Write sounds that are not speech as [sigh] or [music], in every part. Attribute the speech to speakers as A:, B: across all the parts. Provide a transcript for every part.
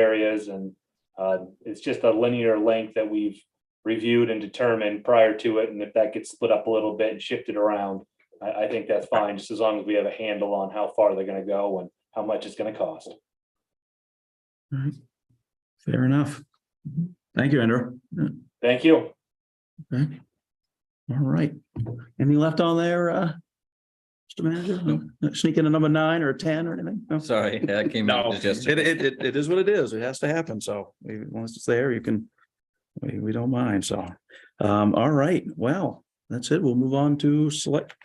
A: areas and uh, it's just a linear length that we've reviewed and determined prior to it, and if that gets split up a little bit and shifted around, I, I think that's fine, just as long as we have a handle on how far they're gonna go and how much it's gonna cost.
B: Fair enough. Thank you, Andrew.
A: Thank you.
B: Okay. All right. Anything left on there, uh? Mr. Manager, No? sneak in a number nine or a ten or anything? No?
C: [laughs]
D: Sorry, that came.
B: No,
D: out
B: it,
D: just-
B: it, it- it is what it is. It has to happen. So we- once it's there, you can, we, we don't mind. So, um, all right. Well, that's it. We'll move on to select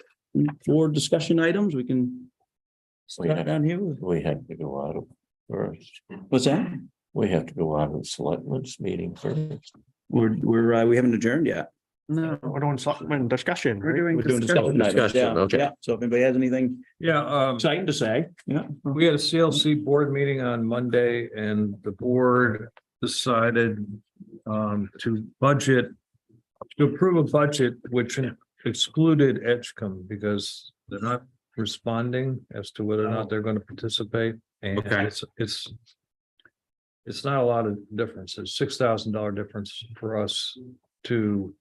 B: board discussion items. We can
C: We
B: start
C: had,
B: down here. with-
C: we had to go out of first.
B: What's that?
C: We have to go out of the selectmen's meeting first.
B: We're, we're, uh, we haven't adjourned yet.
E: No, we're doing something discussion.
B: We're
E: right?
B: doing discussion
C: discussion.
B: items. Yeah,
C: Discussion, okay.
B: yeah. So if anybody has anything
F: Yeah, um,
B: exciting to say, yeah.
F: we had a CLC board meeting on Monday and the board decided um, to budget, to approve a budget which excluded Edgecombe because they're not responding as to whether or
B: Oh.
F: not they're going to participate. And
E: Okay.
F: it's, it's it's not a lot of difference. It's six thousand dollar difference for us to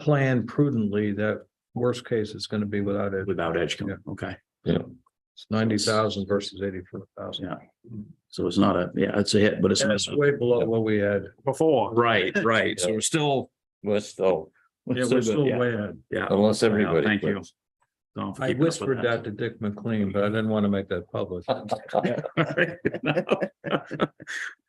F: plan prudently that worst case is going to be without it.
B: Without Edgecombe, okay.
F: It's ninety thousand versus eighty-four thousand.
B: Yeah. So it's not a, yeah, it's a hit, but it's.
F: That's way below what we had.
E: Before.
B: Right, right.
C: So
B: we're still.
C: Let's, oh,
F: Yeah, we're still way ahead.
B: Yeah.
C: unless everybody.
B: Thank you. Don't
F: I
B: forget about
F: whispered that to Dick McLean, but I didn't want to make that public.
B: [laughs] All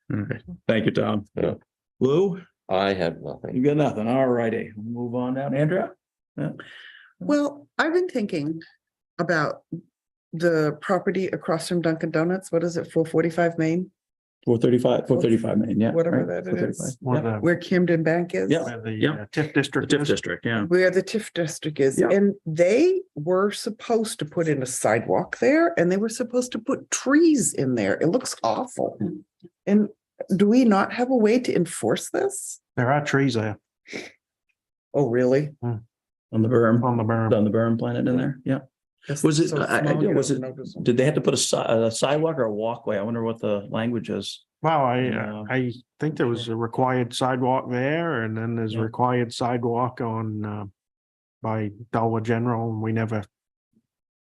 B: right. Thank you, Tom.
C: Yeah.
B: Lou,
C: I have
B: you
C: nothing.
B: got nothing. All righty, We'll move on down. Andrea? Mm.
G: Well, I've been thinking about the property across from Dunkin' Donuts. What is it, four forty-five Main,
B: Four thirty-five, four thirty-five, man, yeah.
G: whatever
B: right,
G: that
B: 435.
G: is,
E: Where the,
G: where Camden Bank is?
B: Yeah.
E: where the
B: Yeah.
E: uh, TIF
B: The
E: district
B: TIF
E: is.
B: district, yeah.
G: Where the TIF district is.
B: Yeah.
G: And they were supposed to put in a sidewalk there and they were supposed to put trees in there. It looks awful.
B: Mm.
G: And do we not have a way to enforce this?
E: There are trees there
G: Oh, really?
B: On the berm,
E: on the berm.
B: on the berm planted in there, yeah.
G: This
B: Was
G: is
B: it-
G: so
B: I- I-
G: small, you
B: was
G: don't
B: it-
G: notice.
B: Did they have to put a si- a sidewalk or a walkway? I wonder what the language is.
E: Wow, I,
B: Yeah.
E: uh, I think there was a required sidewalk there and then there's
B: Yeah.
E: required sidewalk on, uh, by Dollar General and we never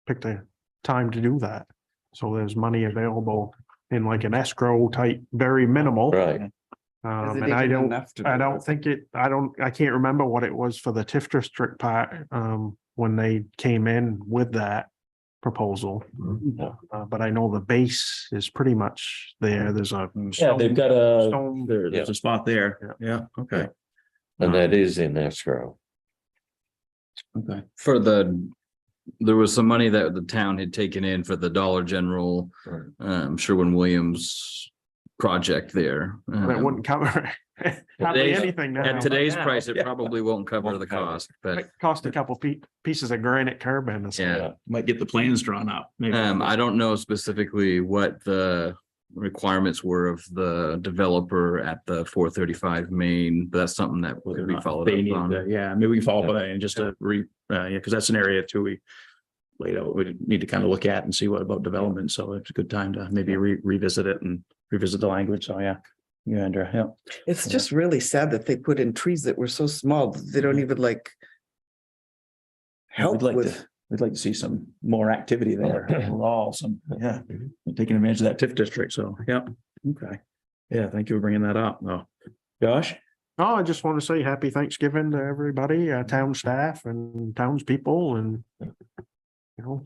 E: picked a time to do that. So there's money available in like an escrow type, very minimal.
C: Right.
G: Is
E: Um,
G: it
E: and I
G: even
E: don't,
G: enough to
E: I
G: do
E: don't
G: this?
E: think it, I don't, I can't remember what it was for the TIF district part, um, when they came in with that proposal.
B: Yeah.
E: Uh, but I know the base is pretty much there. There's a.
B: Yeah, they've got a,
E: Stone.
B: there, there's a spot there. Yeah, okay,
C: And that is in escrow.
B: okay.
D: For the, there was some money that the town had taken in for the Dollar General,
C: Right.
D: um, Sherwin-Williams project there.
E: That
D: Um,
E: wouldn't cover [laughs] hardly
D: Today's-
E: anything now.
D: At today's
B: now,
D: price, it
B: yeah.
D: probably won't cover
C: Won't
D: the
C: cover it.
D: cost, but
E: It Cost a couple pe- pieces of granite curb and it's-
D: yeah.
B: Might get the plans drawn up. maybe.
D: Um, I don't know specifically what the requirements were of the developer at the four thirty-five main, but that's something that
B: whether
D: could
B: or
D: be
B: not
D: followed
B: they
D: up
B: need
D: on.
B: to- Yeah, maybe we can follow up on that and just to re, uh, yeah, because that's an area too, we laid out, we need to kind of look at and see what about development. So it's a good time to maybe re- revisit it and revisit the language. So yeah. Yeah, Andrea, yeah.
G: It's
B: Yeah.
G: just really sad that they put in trees that were so small, that they don't even like help
B: We'd like
G: with,
B: to, we'd like to see some more activity there overall, some, yeah, taking advantage of that TIF district. So, yeah, okay. Yeah, thank you for bringing that up. Oh, Josh?
E: Oh, I just want to say happy Thanksgiving to everybody, uh, town staff and townspeople and you know,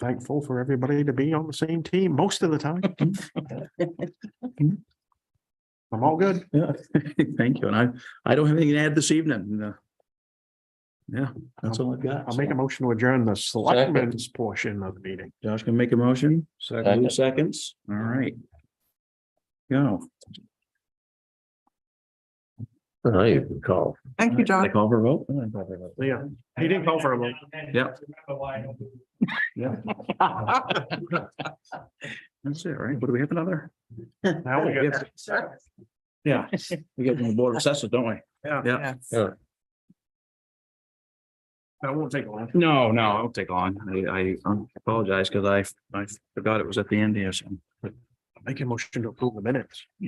E: thankful for everybody to be on the same team most of
B: [laughs]
E: the time. I'm all good.
B: Yeah, [laughs] thank you. And I, I don't have anything to add this evening. no. Yeah, that's all I've got.
E: I'll make a motion to adjourn the selectmen's portion of the meeting.
B: Josh can make a motion.
F: Second.
B: Two seconds. All right. Go.
C: I even call.
G: thank you, John.
B: They call for a vote? Oh, they call for a vote.
E: Yeah, he didn't call for a vote.
D: Yep.
B: Yeah. That's it, right? What do we have another? Oh,
E: Now we got,
B: Yeah,
E: [laughs]
B: we get on the board of assessors, don't we? Yeah.
G: Yes.
E: that won't take long.
B: No, no, it'll take long. I, I apologize because I, I forgot it was at the end here. So.
E: Make a motion to approve the minutes.